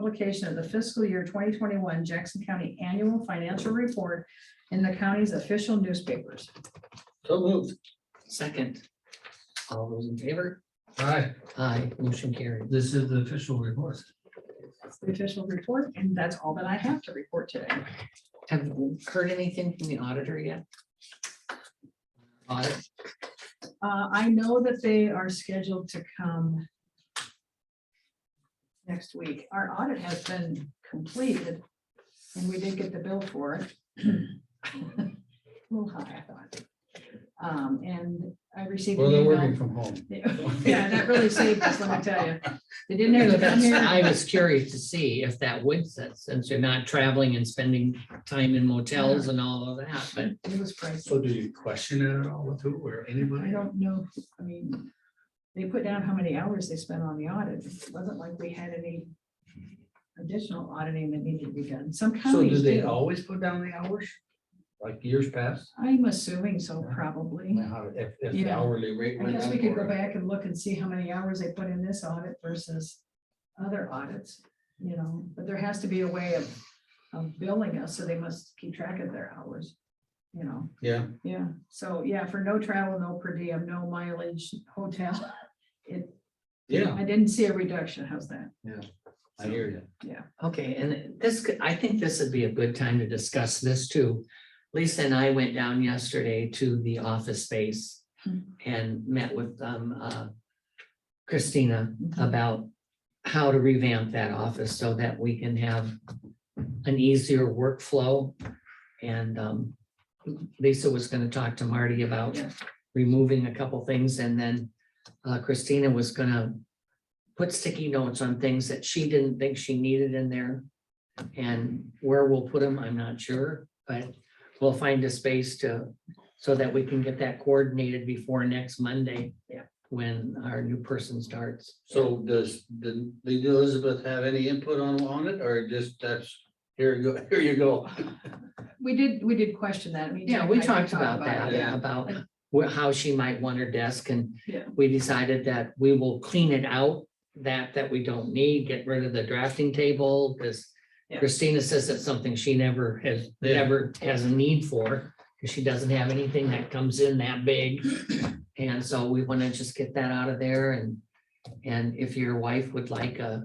publication of the fiscal year twenty twenty-one Jackson County Annual Financial Report in the county's official newspapers. So moved. Second. All those in favor? Aye, Aye, motion carried. this is the official report. That's the official report, and that's all that I have to report today. Have you heard anything from the auditor yet? Audit, Uh, I know that they are scheduled to come next week. Our audit has been completed, and we did get the bill for it. A little high, I thought. Um, and I received. Well, an they're email- working from home. Yeah, that really saved us, let me tell you. They didn't have to come That's- here. I was curious to see if that would, since since you're not traveling and spending time in motels and all of that, but It was pricey. So do you question it at all with who or I anybody? don't know, I mean, they put down how many hours they spent on the audit. It wasn't like we had any additional auditing that needed to be done. Some So do counties they do. always put down the hours? Like years past? I'm assuming so, probably. Now, If, if the Yeah. hourly rate I went guess up we could go or- back and look and see how many hours they put in this audit versus other audits, you know, but there has to be a way of, of billing us, so they must keep track of their hours, you know. Yeah, Yeah, so yeah, for no travel, no per diem, no mileage, hotel. It, yeah, I didn't see a reduction. How's that? I hear you. Okay, and this, could- I think this would be a good time to discuss this too. Lisa and I went down yesterday to the office space Hmm. and met with um uh, Christina about how to revamp that office so that we can have an easier workflow. And um, Lisa was gonna talk to Marty about Yeah. removing a couple things and then uh, Christina was gonna put sticky notes on things that she didn't think she needed in there. And where we'll put them, I'm not sure, but we'll find a space to, so that we can get that coordinated before next Monday. Yeah. When our new person starts. So does, did did Elizabeth have any input on, on it or just that's, here you go, here you go? We did, we did question that. I mean, Yeah, Jack we and I did talked talk about that, it. yeah. about wh- how she might want her desk and Yeah. we decided that we will clean it out, that, that we don't need, get rid of the drafting table, because Yeah. Christina says that's something she never has, Yeah. never has a need for, because she doesn't have anything that comes in that big. And so we want to just get that out of there and, and if your wife would like a,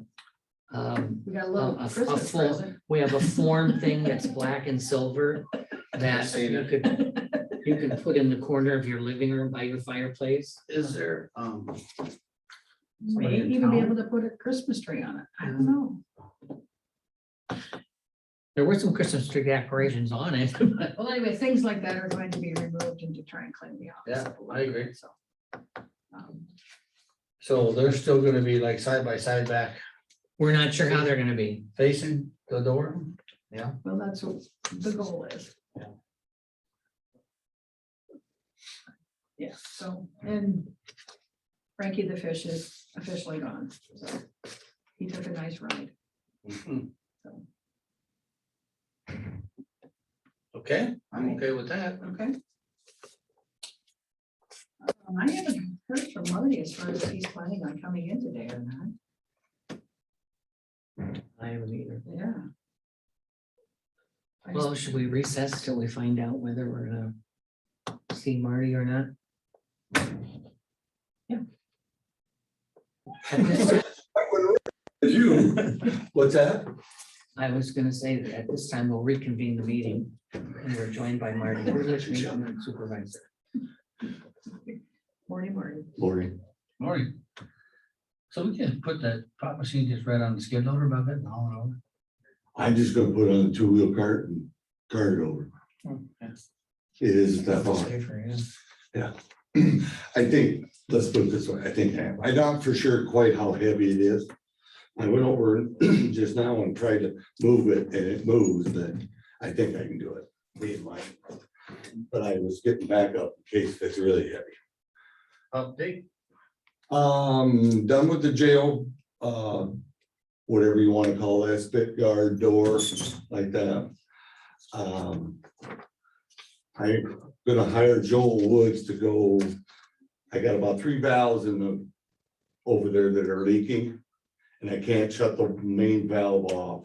um, We got a A- little a- a Christmas full- present. we have a form thing that's black and silver that seen you it. could, you can put in the corner of your living room by your fireplace. Is there, um, May somebody in even be town? able to put a Christmas tree on it. I Mm. don't know. There were some Christmas tree decorations on it. but Well, anyway, things like that are going to be removed and to try and clean the office. Yeah, up a I little agree. bit, So. um, So they're still gonna be like side by side back We're not sure how they're gonna be. facing the door? Well, that's what the goal is. Yeah. Yeah, so, and Frankie the Fish is officially gone, so he took a nice ride. Mm-hmm. so, Okay, I'm Right. okay with that. Okay. Um, I haven't heard from Marty as far as if he's planning on coming in today or not, I haven't either. yeah. I just- Well, should we recess till we find out whether we're gonna see Marty or not? Yeah. At this- You, what's that? I was gonna say that at this time, we'll reconvene the meeting and we're joined by Marty, supervisor. Marty, Marty, Lori, Morning. So we can put that pop machine just right on the skid loader about that and all I'm just gonna put on a two-wheel cart and cart it over. it It is that far. Safer, yeah. I think, let's put it this way, I think, I- I'm not for sure quite how heavy it is. I went over just now and tried to move it and it moves, but I think I can do it. Me and Mike. But I was getting back up in case it's really heavy. over. Update. Um, done with the jail, uh, whatever you wanna call that, spit guard door, like that. Um. I'm gonna hire Joel Woods to go, I got about three valves in the, over there that are leaking. And I can't shut the main valve off